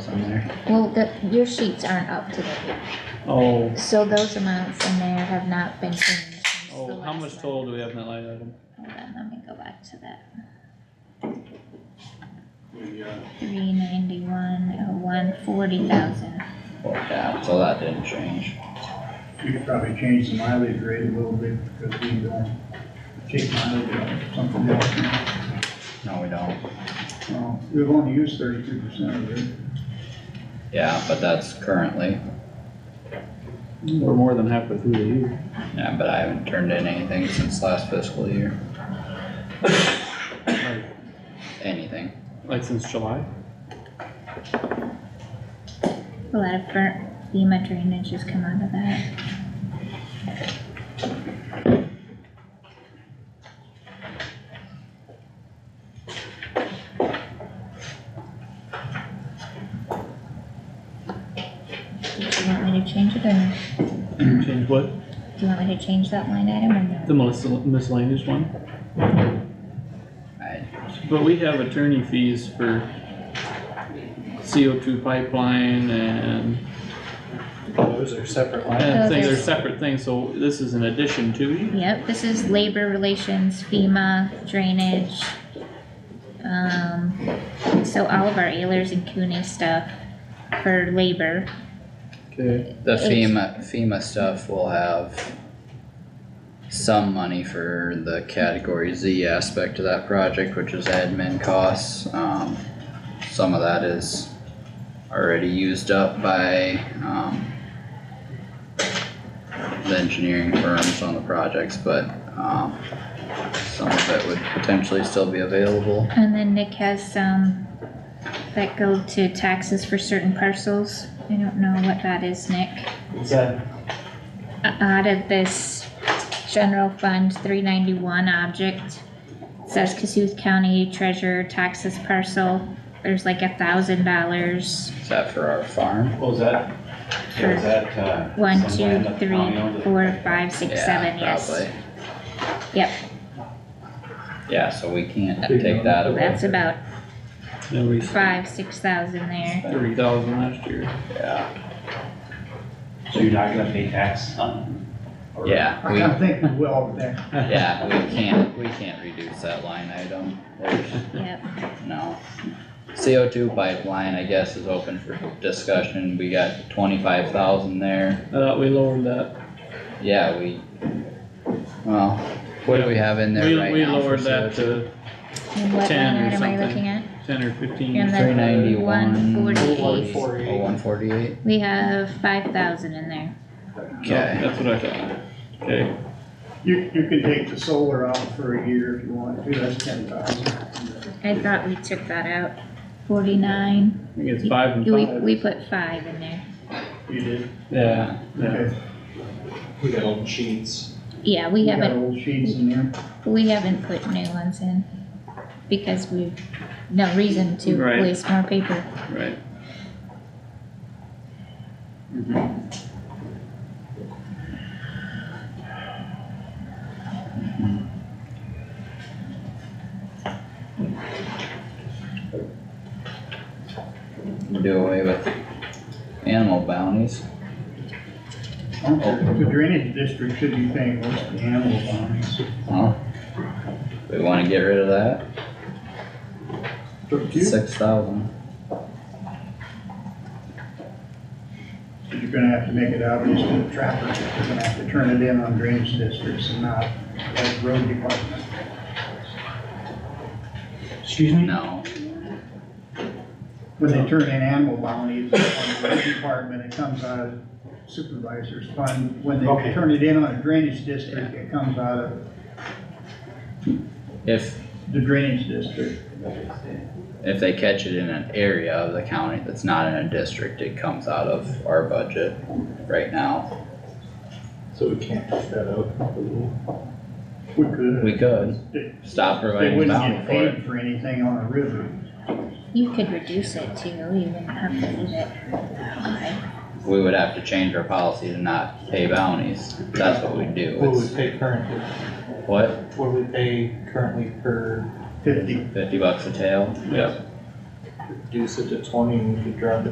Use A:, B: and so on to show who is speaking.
A: from there.
B: Well, the, your sheets aren't up to date,
A: Oh,
B: so those amounts in there have not been changed since the
A: oh, how
B: last
A: much
B: one.
A: total do we have in that line item?
B: Hold on, let me go back to that,
C: We, uh,
B: three ninety-one oh one, forty thousand.
D: Yeah, so that didn't change.
C: we could probably change the mileage rate a little bit because we don't take mileage on something else.
D: No, we don't.
C: Uh, We've only used thirty-two percent of it.
D: Yeah, but that's currently,
A: We're more than halfway through the year.
D: yeah, but I haven't turned in anything since last fiscal year,
A: Like,
D: anything.
A: like since July?
B: A lot of burnt FEMA drainage has come out of that. Do you want me to change it or no?
E: Mm-hmm.
A: Change what?
B: Do you want me to change that line item or no?
A: The miscel- miscellaneous one?
D: I,
A: But we have attorney fees for CO two pipeline and
E: Those are separate lines.
A: I think
B: Those are-
A: they're separate things, so this is an addition to.
B: Yep, this is labor relations, FEMA, drainage. Um, so all of our Ayers and Cooney stuff for labor,
A: Okay.
D: the
B: It's-
D: FEMA, FEMA stuff will have some money for the category Z aspect of that project, which is admin costs, um, some of that is already used up by, um, the engineering firms on the projects, but, um, some of it would potentially still be available.
B: and then Nick has some that go to taxes for certain parcels. I don't know what that is, Nick.
E: Is that
B: Uh, Out of this general fund three ninety-one object, it says Cassuth County Treasurer taxes parcel, there's like a thousand dollars.
D: Is that for our farm?
E: Oh, is that, yeah, is that, uh?
B: One,
E: some
B: two,
E: land that the
B: three,
E: county owns that-
B: four, five, six,
D: Yeah,
B: seven, yes.
D: probably.
B: Yep,
D: Yeah, so we can't take that away,
B: Oh, that's about
A: Then we
B: five, six thousand there.
A: thirty thousand last year.
D: yeah.
E: So you're not gonna pay tax on? or-
D: Yeah,
C: I
D: we,
C: kind of think we will, but that,
D: yeah, we can't, we can't reduce that line item, there's
B: Yep,
D: no. CO two pipeline, I guess, is open for discussion, we got twenty-five thousand
A: I
D: there,
A: thought we lowered that.
D: yeah, we. Well, what do we have in
A: We,
D: there right
A: we
D: now for
A: lowered that
D: CO2?
A: to
B: and what line
A: 10
B: item
A: or
B: are you
A: something.
B: looking at?
A: ten or fifteen.
B: And then-
D: Three ninety-one.
B: 148.
D: Oh, one forty-eight,
B: We have five thousand in there.
A: No,
D: okay,
A: That's what I thought. Okay,
C: you, you can take the solar out for a year if you want to, that's ten thousand.
B: I thought we took that out, forty-nine,
A: I think it's five and
B: we,
A: five.
B: we put five in there.
C: You did,
A: Yeah, yeah.
C: okay.
F: We got old sheets.
B: Yeah, we
C: got
B: haven't,
C: old sheets in there.
B: we haven't put new ones in, because we've, no reason to
A: Right.
B: waste more paper.
A: Right.
D: do away with animal bounties,
C: The drainage district should be paying most of the animal bounties.
D: huh? We wanna get rid of that,
C: But you,
D: six thousand,
C: you're gonna have to make it obvious to the trappers, that they're gonna have to turn it in on drainage districts and not like road department.
E: Excuse me?
D: no,
C: When they turn in animal bounties on the road department, it comes out of supervisor's fund. When they
E: Okay.
C: turn it in on a drainage district, it comes out of
D: if
C: the drainage district.
D: If they catch it in an area of the county that's not in a district, it comes out of our budget right now.
F: So we can't cut that out.
C: We could.
D: We could
C: They-
D: stop
C: They
D: providing
C: wouldn't
D: bounty
C: get
D: for it.
C: paid for anything on a river.
B: You could reduce it too, you wouldn't have to leave it high.
D: We would have to change our policy to not pay bounties. That's what we do.
F: What
D: It's
F: we pay currently,
D: what,
F: what we pay currently per,
C: Fifty
D: fifty bucks a tail?
A: Yep.
F: reduce it to twenty and we could drop it